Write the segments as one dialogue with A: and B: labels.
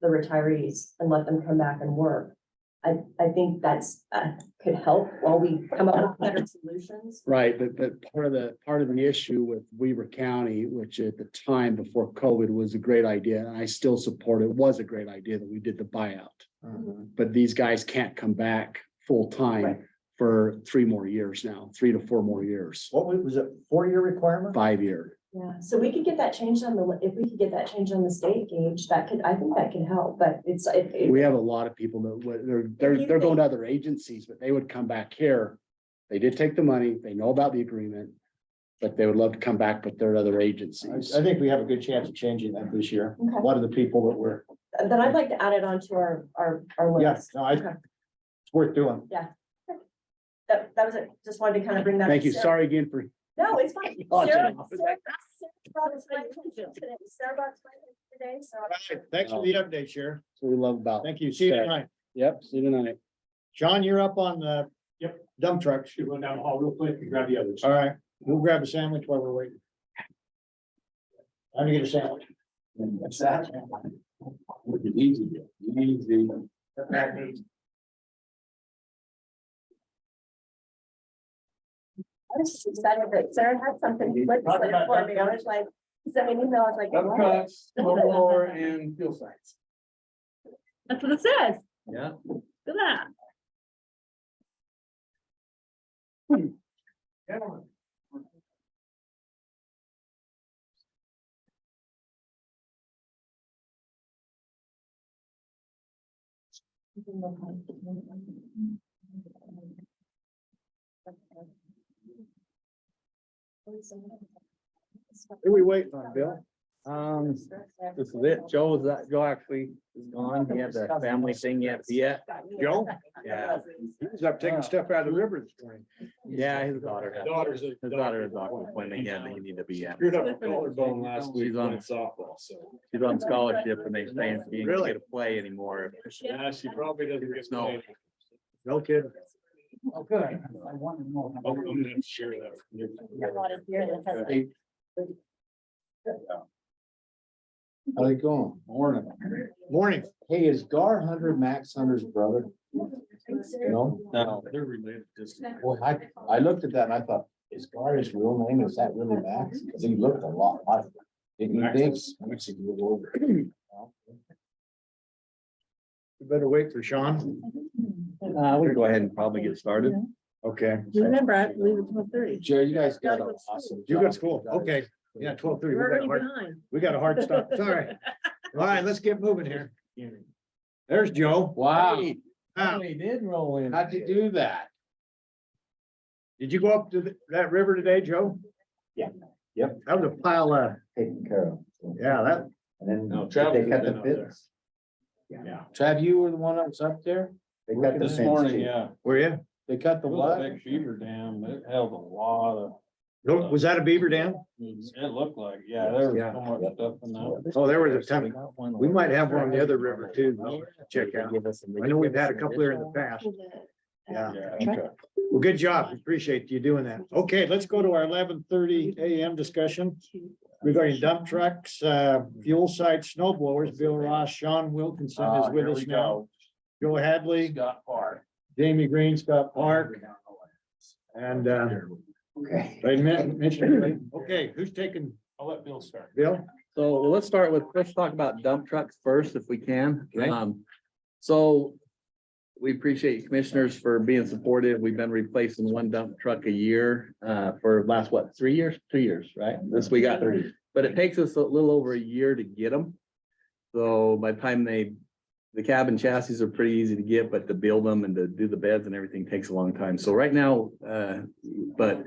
A: the retirees and let them come back and work. I, I think that's, uh, could help while we come up with better solutions.
B: Right, but, but part of the, part of the issue with Weaver County, which at the time before COVID was a great idea, and I still support it, was a great idea that we did the buyout.
C: Mm-hmm.
B: But these guys can't come back
A: Right.
B: full-time for three more years now, three to four more years,
C: What was was it, four-year requirement?
B: five-year.
A: Yeah, so we could get that changed on the, if we could get that changed on the state gauge, that could, I think that could help, but it's, it, it-
B: We have a lot of people that, would- they're, they're, they're going to other agencies, but they would come back here. They did take the money, they know about the agreement, but they would love to come back, but they're at other
C: I,
B: agencies.
C: I think we have a good chance of changing that this year. A
A: Okay.
C: lot of the people that were,
A: then I'd like to add it onto our, our, our
C: yeah,
A: list.
C: no, I,
A: Okay.
C: it's worth doing.
A: That, that was it, just wanted to kind of bring that. up.
B: Thank you,
A: Sarah-
B: sorry again for
A: No, it's fine.
B: Oh,
A: Sarah-
B: Jennifer.
A: Sarah- Sarah brought us my attention today. Sarah brought us my attention today, so.
C: Thanks for the update, Sheriff.
B: what we love about.
C: Thank you. See you
B: Okay.
C: tonight.
B: Yep, see you tonight.
C: John, you're up on the. Yep. Dump truck.
D: Should run down the hall real quick and grab the others.
C: All right, we'll grab a sandwich while we're waiting. Time to get a sandwich. What's that?
D: Easy, easy.
A: I was just excited that Sarah had something legislative for me. I was like, she sent me an email, I was like.
D: Dump
A: "What?"
D: trucks, more and fuel sites.
E: That's what it says.
D: Yeah.
E: Look at
B: Who we waiting on, Bill?
F: Um, this is it. Joe is that, Joe actually is gone. He had the family thing yet, yeah.
C: Joe?
F: Yeah.
C: He was up taking stuff out of the river this morning.
F: Yeah, his daughter. had-
D: Daughter's a-
F: His daughter is off when they had, they need to be at.
D: Screwed up her collarbone last week
F: She's on-
D: on softball, so.
F: She's on scholarship and they saying she ain't
D: Really?
F: gonna play anymore.
E: that.
D: Yeah, she probably doesn't get.
F: No.
D: paid.
C: No kid.
G: Oh, good. I want to know.
D: I'm gonna have to share that.
C: How they going? Morning. Morning. Hey, is Gar Hunter Max Hunter's brother? No?
D: No, they're related just.
C: Well, I, I looked at that and I thought, is Gar his real name? Is that really Max? Because he looked a lot like. Didn't you think? Max is a little older. You better wait for Sean.
F: Uh, we go ahead and probably get started.
C: Okay.
E: Remember, I believe it's twelve thirty.
C: Jerry, you guys
E: got an awesome
C: You got school. Okay. Yeah, twelve thirty.
E: We're already behind.
C: We got a hard stop. Sorry. All right, let's get moving here. There's Joe.
F: Wow.
C: Wow.
F: He did roll in.
C: How'd you do that? Did you go up to th- that river today, Joe?
G: Yeah.
C: Yep. That was a pile of,
G: Taken care of. so.
C: yeah, that,
G: And then
D: No,
G: they
D: Travis
G: cut
D: has
G: the
D: been out
G: fence.
D: Yeah.
C: Trav, you were the one that was up there?
G: They cut the
D: This
G: fence.
D: morning,
G: too.
D: yeah.
C: Were you? They cut the
D: It was a
C: what?
D: Big beaver dam, it held a lot of,
C: No, Was that a beaver dam?
F: Mm-hmm.
D: it looked like, yeah, there was
C: Yeah.
D: so much stuff in that.
C: Oh, there was a ton. We might have one on the other river too.
F: Well,
C: Check out.
F: Give us some-
C: I know we've had a couple there in the past. Yeah. Well, good job. Appreciate you doing that. Okay, let's go to our eleven thirty AM discussion regarding dump trucks, uh, fuel sites, snow blowers. Bill Ross, Sean Wilkinson is with us now. Joe Hadley. Scott Park. Jamie Green, Scott Park. And, uh,
G: Okay.
C: I men- mentioned, okay, who's taking
D: I'll let Bill start.
C: Bill?
F: So well, let's start with, let's talk about dump trucks first if we can.
C: Okay.
F: Um, so we appreciate commissioners for being supportive. We've been replacing one dump truck a year uh, for last, what, three years, two years, right? This we got, but it takes us a little over a year to get them. So by the time they, the cab and chassis are pretty easy to get, but to build them and to do the beds and everything takes a long time. So right now, uh, but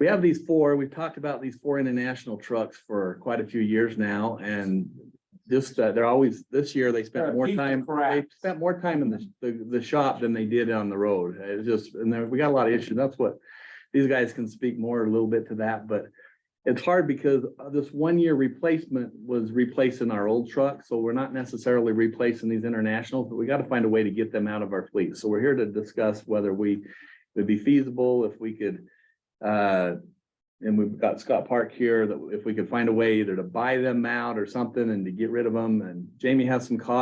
F: we have these four, we've talked about these four international trucks for quite a few years now and just, uh, they're always, this year they
D: They're
F: spent
D: a
F: more
D: piece of
F: time, they
D: crap.
F: spent more time in the, the, the shop than they did on the road. It's just, and there, we got a lot of issues. That's what, these guys can speak more a little bit to that, but it's hard because uh, this one-year replacement was replacing our old truck, so we're not necessarily replacing these internationals, but we gotta find a way to get them out of our fleet. So we're here to discuss whether we, would be feasible, if we could, uh, and we've got Scott Park here, that if we could find a way either to buy them out or something and to get rid of them, and Jamie has some costs.